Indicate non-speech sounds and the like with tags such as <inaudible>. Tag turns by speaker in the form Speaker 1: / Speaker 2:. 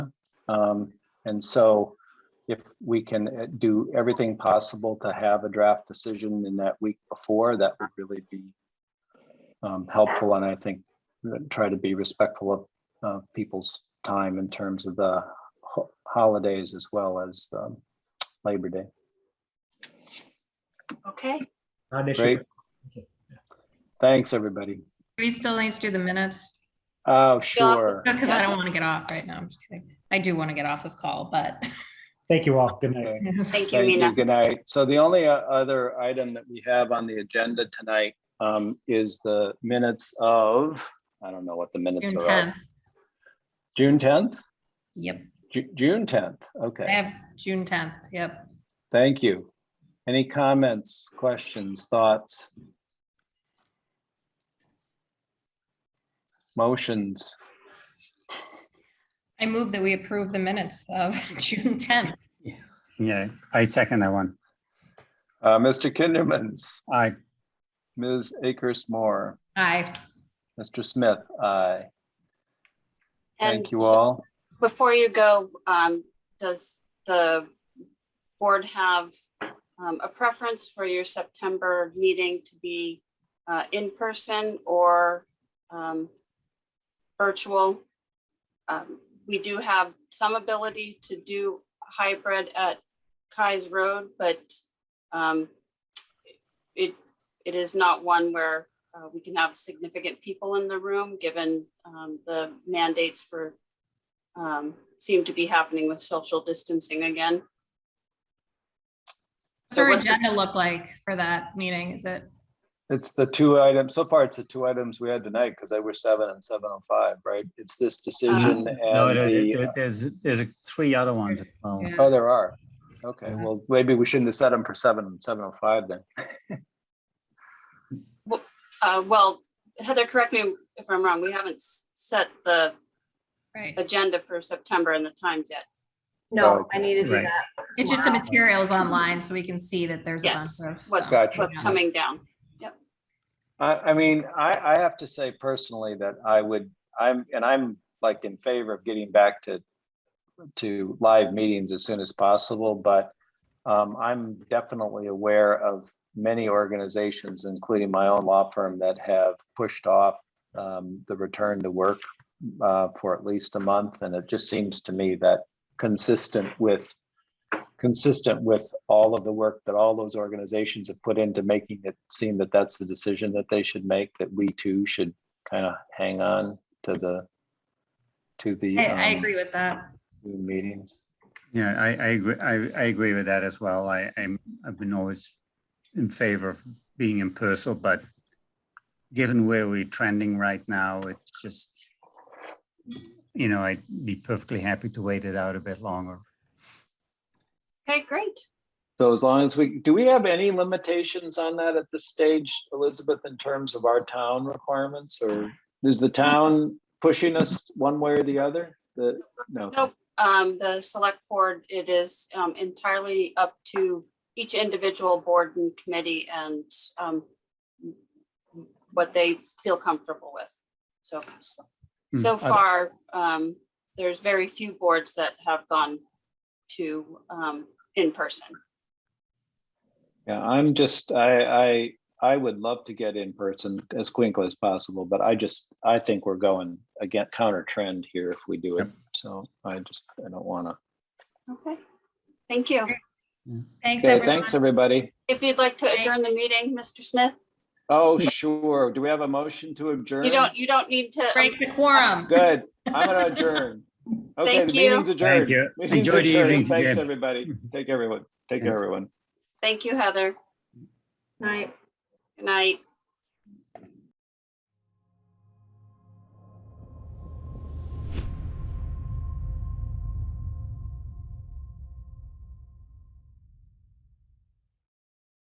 Speaker 1: Um, And so if we can uh, do everything possible to have a draft decision in that week before, that would really be um, helpful and I think that try to be respectful of uh, people's time in terms of the ho- holidays as well as um, Labor Day.
Speaker 2: Okay,
Speaker 3: Not an issue.
Speaker 1: Great. Thanks, everybody.
Speaker 4: We still need to do the minutes.
Speaker 1: Oh,
Speaker 2: Still have to-
Speaker 1: sure.
Speaker 4: Because I don't want to get off right now. I'm just kidding. I do want to get off this call, but <laughs>
Speaker 3: Thank you all. Good night.
Speaker 1: Okay.
Speaker 2: thank you,
Speaker 1: Thank you.
Speaker 2: Mina.
Speaker 1: Good night. So the only uh, other item that we have on the agenda tonight um, is the minutes of, I don't know what the minutes
Speaker 4: June
Speaker 1: are. of.
Speaker 4: 10th.
Speaker 1: June 10th?
Speaker 4: Yep,
Speaker 1: Ju- June 10th.
Speaker 4: I
Speaker 1: Okay,
Speaker 4: have June 10th. Yep.
Speaker 1: thank you. Any comments, questions, thoughts? Motions?
Speaker 4: I move that we approve the minutes of <laughs> June 10th.
Speaker 5: Yeah, I second that one.
Speaker 1: Uh, Mr. Kindermans,
Speaker 5: I,
Speaker 1: Ms. Akers Moore,
Speaker 4: Aye.
Speaker 1: Mr. Smith, aye.
Speaker 2: And
Speaker 1: Thank you
Speaker 2: so
Speaker 1: all.
Speaker 2: Before you go, um, does the board have um, a preference for your September meeting to be uh, in person or um, virtual? Um, We do have some ability to do hybrid at Kai's Road, but um, it, it is not one where uh, we can have significant people in the room, given um, the mandates for um, seem to be happening with social distancing again.
Speaker 4: What's our
Speaker 2: what's the-
Speaker 4: agenda look like for that meeting? Is it?
Speaker 1: It's the two items, so far it's the two items we had tonight, because they were seven and seven oh five, right? It's this decision
Speaker 6: Uh-huh.
Speaker 5: no,
Speaker 6: Um,
Speaker 1: and
Speaker 5: there-
Speaker 1: the,
Speaker 5: there- there's, there's three
Speaker 6: uh,
Speaker 5: other ones. as well.
Speaker 4: Yeah.
Speaker 1: oh, there are. Okay, well, maybe we shouldn't have set them for seven and seven oh five then.
Speaker 2: Uh, well, Heather, correct me if I'm wrong, we haven't s- set the
Speaker 4: Right.
Speaker 2: agenda for September and the times yet.
Speaker 6: No,
Speaker 1: Okay.
Speaker 6: I need to do
Speaker 5: Right.
Speaker 6: that.
Speaker 4: It's just the
Speaker 6: tomorrow.
Speaker 4: materials online so we can see that there's. a bunch
Speaker 2: Yes,
Speaker 4: of,
Speaker 2: what's,
Speaker 4: um,
Speaker 1: Gotcha.
Speaker 2: what's
Speaker 4: yeah.
Speaker 2: coming down.
Speaker 1: I, I mean, I, I have to say personally that I would, I'm, and I'm like in favor of getting back to, to live meetings as soon as possible, but um, I'm definitely aware of many organizations, including my own law firm, that have pushed off um, the return to work uh, for at least a month, and it just seems to me that consistent with consistent with all of the work that all those organizations have put into making it seem that that's the decision that they should make, that we too should kind of hang on to the, to the.
Speaker 4: I, I
Speaker 1: um,
Speaker 4: agree with that.
Speaker 1: Zoom Meetings.
Speaker 5: Yeah, I, I, agree- I, I agree with that as well. I, I'm, I've been always in favor of being in person, but given where we're trending right now, it's just, you know, I'd be perfectly happy to wait it out a bit longer.
Speaker 2: Okay, great.
Speaker 1: So as long as we, do we have any limitations on that at this stage, Elizabeth, in terms of our town requirements? Or is the town pushing us one way or the other? The, no,
Speaker 2: Nope. Um, the select board, it is um, entirely up to each individual board and committee and um, what they feel comfortable with. So, so
Speaker 5: Hmm. I-
Speaker 2: far, um, there's very few boards that have gone to um, in person.
Speaker 1: yeah, I'm just, I, I, I would love to get in person as quickly as possible, but I just, I think we're going again counter trend here if we do it. So I just, I don't want to.
Speaker 2: Okay. Thank you.
Speaker 4: Thanks,
Speaker 1: Okay,
Speaker 4: everyone.
Speaker 1: thanks, everybody.
Speaker 2: If you'd like to
Speaker 4: Thanks.
Speaker 2: adjourn the meeting, Mr. Smith,
Speaker 1: Oh, sure. Do we have a motion to adjourn?
Speaker 2: you don't, you don't need to.
Speaker 4: Break the quorum.
Speaker 1: Good. I'm gonna adjourn. Okay,
Speaker 2: Thank
Speaker 1: the
Speaker 2: you.
Speaker 1: meeting's
Speaker 5: Thank
Speaker 1: adjourned.
Speaker 5: you.
Speaker 1: Meeting's
Speaker 5: Enjoy the
Speaker 1: adjourned.
Speaker 5: evening.
Speaker 1: Thanks,
Speaker 5: Jim.
Speaker 1: everybody. Take everyone. Take
Speaker 5: Yeah.
Speaker 1: everyone.
Speaker 2: Thank you, Heather.
Speaker 6: Night.
Speaker 2: Good night.